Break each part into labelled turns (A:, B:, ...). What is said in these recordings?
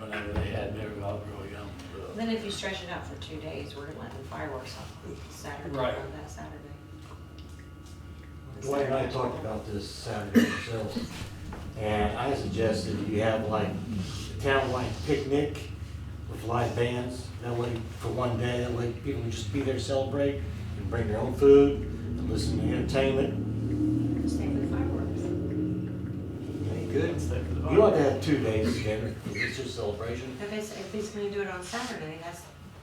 A: whenever they had their outdoor young. uh,
B: Then if you stretch it out for two days, we're letting fireworks on Saturday,
C: Right.
B: on that Saturday.
D: Dwayne and I talked about this Saturday ourselves, and I suggested you have like a town-wide picnic with live bands, that way for one day, that way people can just be there, celebrate, and bring their own food, and listen to entertainment.
B: Same with fireworks.
D: Good.
A: uh,
D: You ought to have two days together, it's just celebration.
B: If it's, if he's gonna do it on Saturday, that's,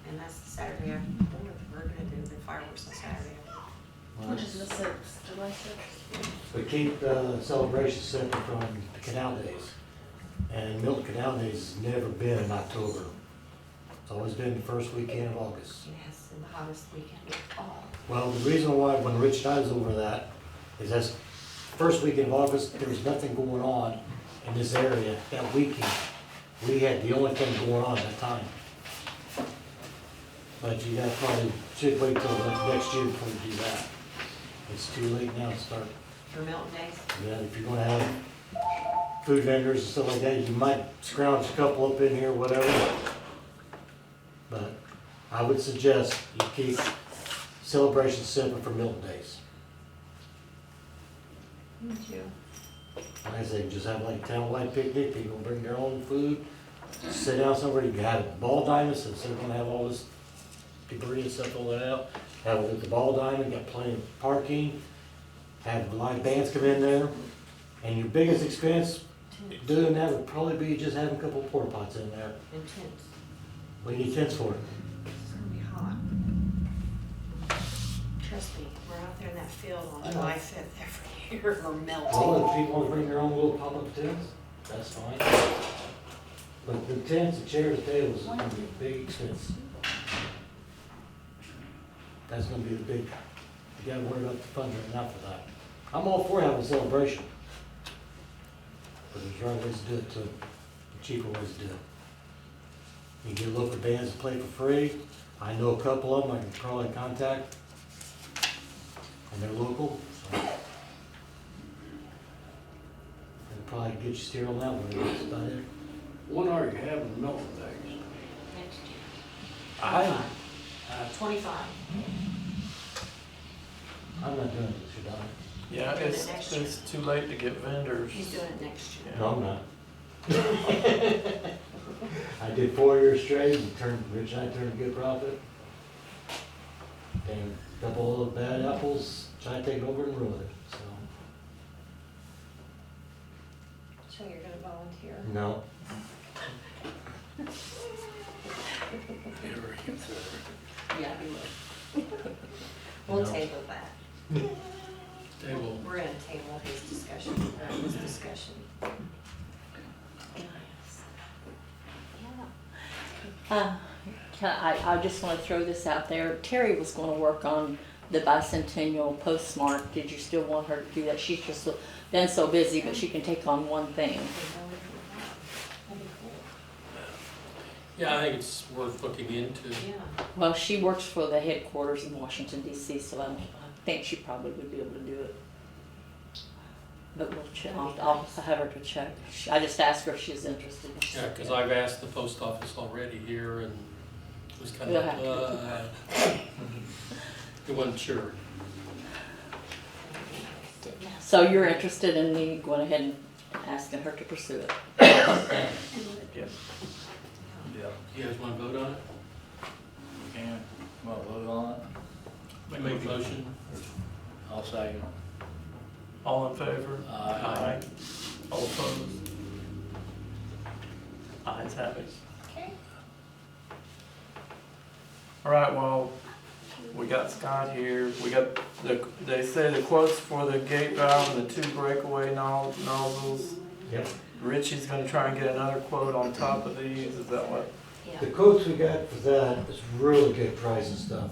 B: and that's the Saturday after, we're gonna do the fireworks on Saturday.
E: Which is the sixth, July sixth.
D: But keep uh, celebrations separate from Canal Days. And Milton Canal Days has never been in October. It's always been the first weekend of August.
B: Yes, and the hottest weekend of all.
D: Well, the reason why when Rich and I was over that is that's first weekend of August, there was nothing going on in this area that weekend. We had the only thing going on at that time. But you guys probably should wait till the next year before you do that. It's too late now to start.
B: For Milton Days,
D: Yeah, if you're gonna have food vendors and stuff like that, you might scrounge a couple up in here, whatever. But I would suggest you keep celebrations separate from Milton Days.
B: me too.
D: Like I say, just have like a townwide picnic, people bring their own food, sit down somewhere, you can have ball diamonds, since they're gonna have all this debris and stuff all that out. Have it at the ball diamond, got plenty of parking, have live bands come in there. And your biggest expense doing that would probably be just having a couple porta pots in there.
B: Intense.
D: We need tents for it.
B: It's gonna be hot. Trust me, we're out there in that field on July fifth every year, we're
D: All
B: melting.
D: the people wanna bring their own little pop-up tents, that's fine. But the tents, the chairs, tables, is gonna be a big expense. That's gonna be the big, you gotta worry about the funding now for that. I'm all for having a celebration. But there's right ways to do it too, cheaper ways to do it. You get local bands to play for free, I know a couple of them I can probably contact. And they're local, so. And probably get you steer on that one, that's about it.
A: When are you having Milton Days?
B: Next year,
D: I,
B: twenty-five.
D: I'm not doing this, you're not.
C: Yeah,
B: Do it
C: it's,
B: next year.
C: it's too late to get vendors.
B: He's doing it next year.
D: No, I'm not. I did four years straight and turned, Rich and I turned a good profit. And a couple of bad apples, tried to take over and ruin it, so.
B: So you're gonna volunteer?
D: No.
A: Ever consider?
B: Yeah, we will. We'll
D: No.
B: table that.
A: They will.
B: We're gonna table his discussion, uh, this discussion.
E: Uh, can I, I just want to throw this out there. Terry was going to work on the bicentennial postmark. Did you still want her to do that? She's just been so busy, but she can take on one thing.
F: Yeah, I think it's worth looking into.
B: Yeah,
E: Well, she works for the headquarters in Washington D.C., so I, don't, I think she probably would be able to do it. But we'll check. I'll, I'll have her to check. She, I just asked her if she's interested. and she
F: Yeah,
E: said
F: because
E: yeah.
F: I've asked the post office already here and it was kind
E: We'll
F: of,
E: have to.
F: uh, it wasn't sure.
E: So you're interested in me going ahead and asking her to pursue it?
C: Yes. Yeah.
F: You guys want to vote on it?
C: And, well, vote on it.
F: We make a motion?
A: I'll say,
C: All in favor?
A: Aye.
C: All opposed? Ayes have it.
B: okay.
C: All right, well, we got Scott here, we got the, they say the quotes for the gate valve and the two breakaway no- nozzles.
D: Yep.
C: Richie's gonna try and get another quote on top of these, is that what?
B: Yeah,
D: The quotes we got for that is really good price and stuff.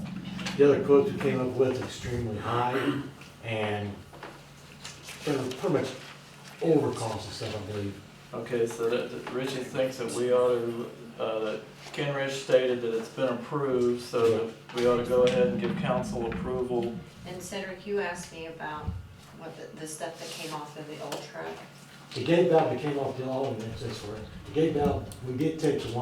D: The other quotes we came up with extremely high and they're pretty much over cost and stuff, I believe.
C: Okay, so that, that Richie thinks that we ought to, uh, that Ken Rich stated that it's been approved, so that we ought to go ahead and give council approval.
B: and Cedric, you asked me about what the, the stuff that came off of the old truck.
D: The gate valve that came off the, oh, that's, that's where, the gate valve, we did take the